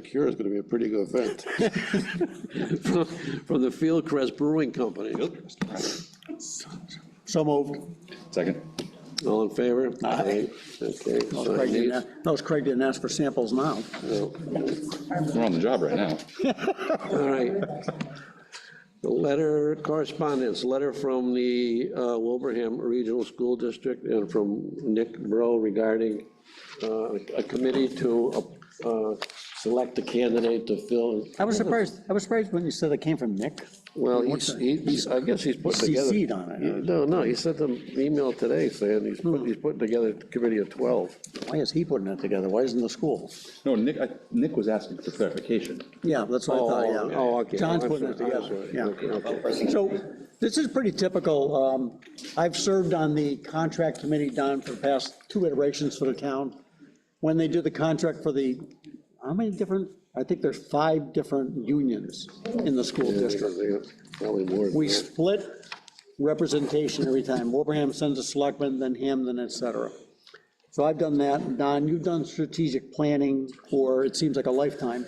Cure is gonna be a pretty good event. from from the Fieldcrest Brewing Company. So moved. Second. All in favor? Aye. Okay. so I Craig need- didn't, a- notice Craig didn't ask for samples now. no. We're on the job right now. All right. The letter, correspondence, letter from the uh, Wilbraham Regional School District and from Nick Bro regarding uh, a committee to uh, select a candidate to fill. I was surprised, I was surprised when you said it came from Nick. Well, he's, he- he's, I guess he's putting together. CC'd on it. Hmm. No, no, he sent them email today saying he's, put- he's putting together a committee of 12. Why is he putting it together? Why isn't the school? No, Nick, I- Nick was asking for clarification. Yeah, that's what I thought, yeah. Oh, okay. John's I'm putting it sorry, I'm together, sorry. yeah. Okay, okay. So this is pretty typical. Um, I've served on the contract committee, Don, for the past two iterations for the town. When they do the contract for the, how many different, I think there's five different unions in the school district. Probably more. than We that. split representation every time. Wilbraham sends a selectman, then him, then et cetera. So I've done that. Don, you've done strategic planning for, it seems like a lifetime.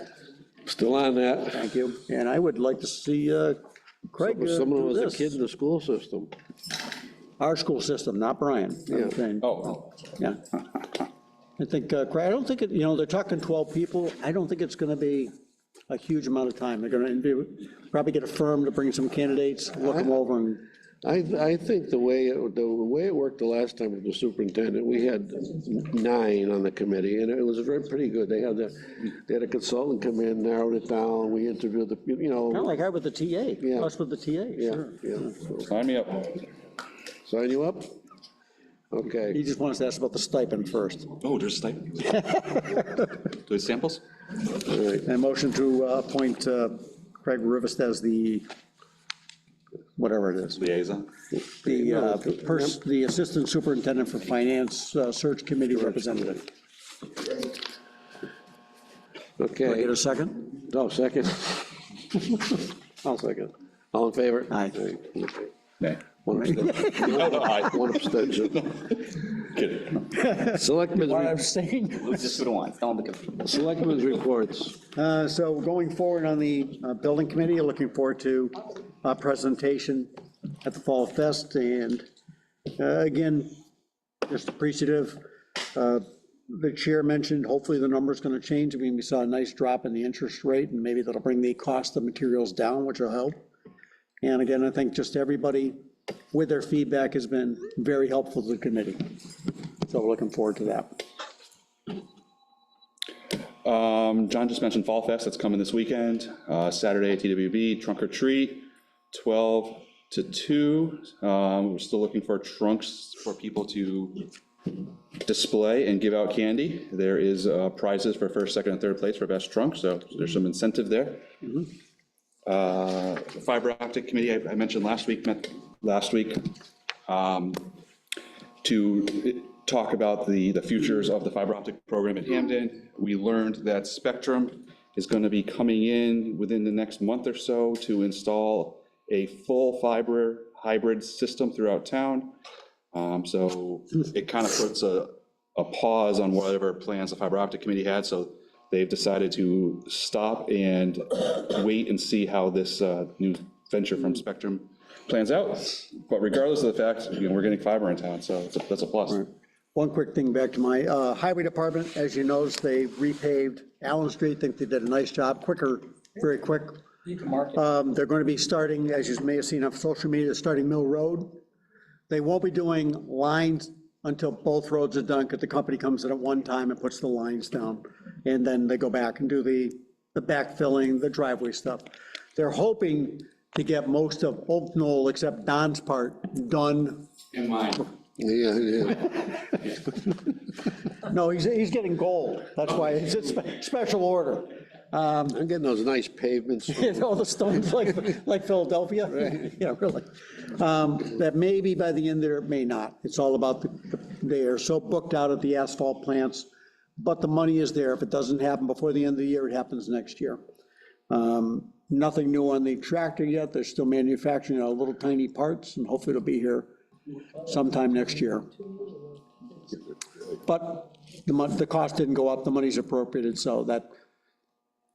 Still on that. Thank you. And I would like to see uh, Craig uh, Someone do was a kid this. in the school system. Our school system, not Brian. I'm Yeah. saying, Oh, Yeah. I think, uh, Craig, I don't think, it- you know, they're talking 12 people. I don't think it's going to be a huge amount of time. They're going to probably get a firm to bring some candidates, look them over and I, I think the way, it- the way it worked the last time with the superintendent, we had nine on the committee, and it was very pretty good. They had the, they had a consultant come in, narrowed it down, we interviewed the, you Kind of know, like I with the TA, Yeah. us with the TA, yeah, sure. yeah. So, sign me up. Sign you up? He Okay. just wants to ask about the stipend first. Oh, there's stipend. Do samples? All right. And motion to uh, appoint uh, Craig Rivest as the, whatever it is, Liaison. the, uh, pers- the Assistant Superintendent for Finance uh, Search Committee Representative. Do I Okay. get a second? No, second. I'll second. All in favor? Aye. Aye, okay. Nay. One abstention. No, Oh, no, I, One abstention. kidding. Selectmen's, re- abstain. Let's just go to one. Tell them to come. selectmen's reports. Uh, So going forward on the uh, building committee, looking forward to a presentation at the Fall Fest, and uh, again, just appreciative. uh, The chair mentioned, hopefully the number's gonna change, I mean, we saw a nice drop in the interest rate, and maybe that'll bring the cost of materials down, which will help. And again, I think just everybody with their feedback has been very helpful to the committee, so we're looking forward to that. Um, John just mentioned Fall Fest, that's coming this weekend, uh, Saturday at TWB, trunk or treat, 12 to 2. Um, We're still looking for trunks for people to display and give out candy. There is uh, prizes for first, second, and third place for best trunk, so there's some incentive there. Uh, Fiber optic committee, I- I mentioned last week, met last week, um, to talk about the, the futures of the fiber optic program at Hamden. We learned that Spectrum is going to be coming in within the next month or so to install a full fiber hybrid system throughout town. Um, So it kind of puts a, a pause on whatever plans the fiber optic committee had. So they've decided to stop and wait and see how this uh, new venture from Spectrum plans out. But regardless of the fact, you know, we're getting fiber in town, so it's a- that's a plus. One quick thing back to my uh, highway department, as you noticed, they repaved Allen Street, think they did a nice job, quicker, very quick. Um, They're going to be starting, as you may have seen on social media, they're starting Mill Road. They won't be doing lines until both roads are done, because the company comes in at one time and puts the lines down. And then they go back and do the, the backfilling, the driveway stuff. They're hoping to get most of Oak Knoll, except Don's part, done In mind. Yeah, yeah. No, he's, he's getting gold. That's why it's a spe- special order. I'm getting those nice pavements. All the stones like, like Philadelphia. Yeah, really. Um, That may be by the end there, it may not. It's all about, the they are so booked out at the asphalt plants, but the money is there. If it doesn't happen before the end of the year, it happens next year. Um, Nothing new on the tractor yet. They're still manufacturing uh, little tiny parts, and hopefully it'll be here sometime next year. But the mon, the cost didn't go up, the money's appropriated, so that,